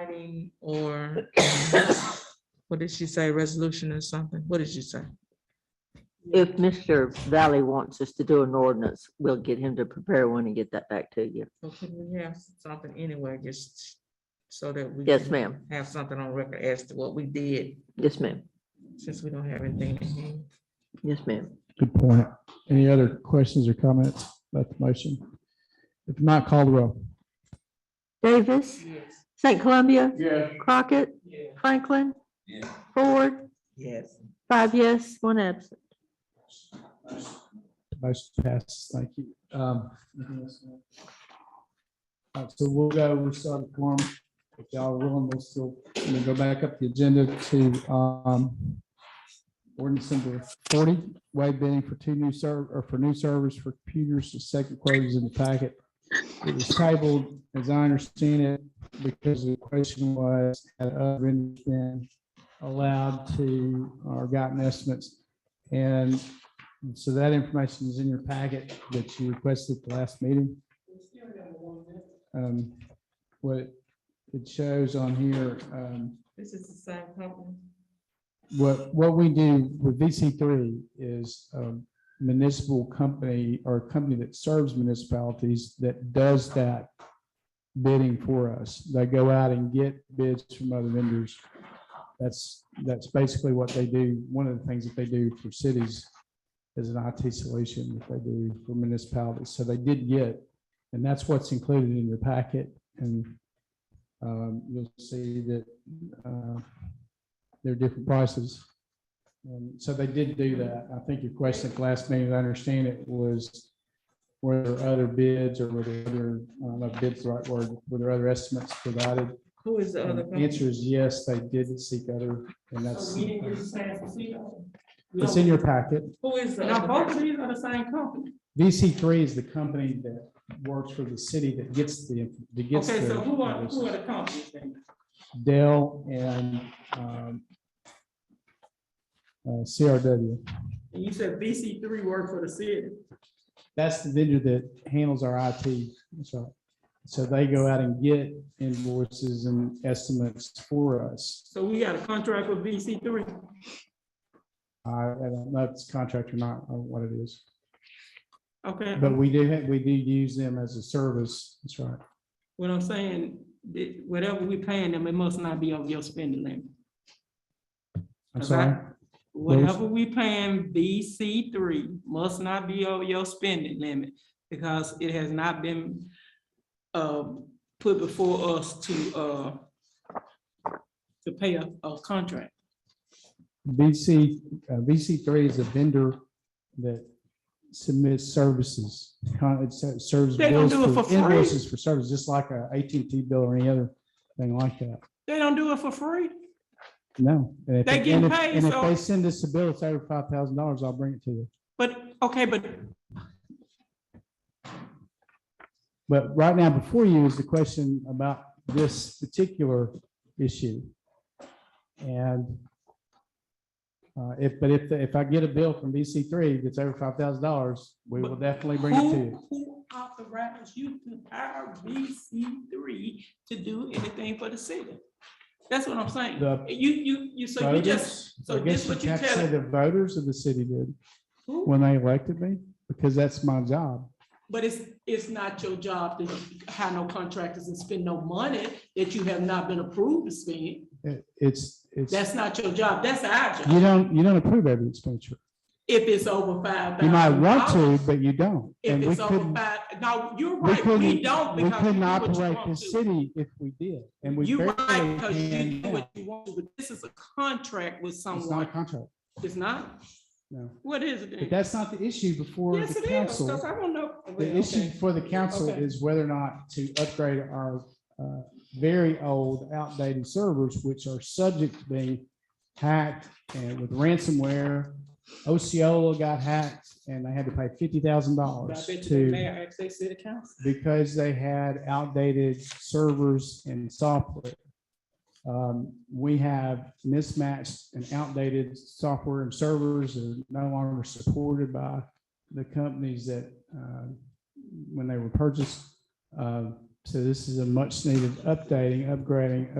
writing or, um, what did she say, resolution or something? What did she say? If Mr. Valley wants us to do an ordinance, we'll get him to prepare one and get that back to you. So can we have something anyway, just so that we? Yes, can ma'am. Have something on record as to what we did, Yes, ma'am. since we don't have anything in hand. Yes, ma'am. Good point. Any other questions or comments about the motion? If not, call the roll. Davis, Yes. St. Columbia, Yes. Crockett, Franklin, Ford, Yes. five yes, one absent. Motion passes. Thank you. Um, all right, so we'll go, we'll start the forum. If y'all are willing, we'll still, we'll go back up the agenda to, um, ordinance number forty, waive bidding for two new serv, or for new servers for computers. The second quote is in the packet. It was tabled, as I understand it, because the question was, had other vendors been allowed to, or gotten estimates? And so that information is in your packet that you requested at the last meeting. Um, What it- it shows on here, um, This is the same company. what, what we do with VC three is a municipal company or a company that serves municipalities that does that bidding for us. They go out and get bids from other vendors. That's, that's basically what they do. One of the things that they do for cities is an IT solution that they do for municipalities. So they did get, and that's what's included in your packet. And um, you'll see that uh, they're different prices. And so they did do that. I think your question at the last meeting, as I understand it, was were there other bids or were there other, I don't know if bids the right word, were there other estimates provided? Who is the And other The company? answer is yes, they did seek other, and that's, uh, So we didn't get the same placebo. it's in your packet. Who is the Now, other? both company? of these are the same company. VC three is the company that works for the city that gets the, that gets Okay, so who are, who are the the companies then? Dell and um, uh, CRW. And you said VC three worked for the city. That's the vendor that handles our IT. So, so they go out and get invoices and estimates for us. So we got a contract with VC three. I I don't know if it's contract or not, or what it is, Okay, but we do, have- we do use them as a service. That's right. what I'm saying, that whatever we paying them, it must not be over your spending limit. I'm Okay. sorry. was- Whatever we paying VC three must not be over your spending limit because it has not been uh, put before us to uh, to pay a, a contract. VC, uh, VC three is a vendor that submits services, con- it ser- serves They don't bills do it for for free. invoices for service, just like a AT&T bill or any other thing like that. They don't do it for free. No. and if They it- getting and if- paid, And if so- they send us a bill, it's over five thousand dollars, I'll bring it to you. But, okay, but But right now, before you is the question about this particular issue. And uh, if, but if, if I get a bill from BC three that's over five thousand dollars, we will definitely bring it to who, you. who authorized you to hire VC three to do anything for the city? That's what I'm saying. The You, you, you, so you just, Voters, so I guess this what you you have to tell- say the voters of the city did who? when they elected me, because that's my job. But it's, it's not your job to hire no contractors and spend no money that you have not been approved to spend. It- It's, it's, That's not your job. That's our you job. don't, you don't approve every expenditure. If it's over five thousand. You might want to, but you don't. If And we it's over couldn't, five, no, you're we right. We don't couldn't, we because you couldn't do what you operate want the to. city if we did. And we You barely right, because you can do now. what you want to, but this is a contract with It's not a someone. contract, It's not? no. What is it? But then? that's not the issue before Yes, the it is, council. because I don't know. The issue for the council Okay. is whether or not to upgrade our uh, very old outdated servers, which are subject to being hacked and with ransomware. Osceola got hacked and they had to pay fifty thousand I dollars bet you the to, mayor asked their city council. because they had outdated servers and software. Um, We have mismatched and outdated software and servers that are no longer supported by the companies that, uh, when they were purchased. Uh, So this is a much needed updating, upgrading of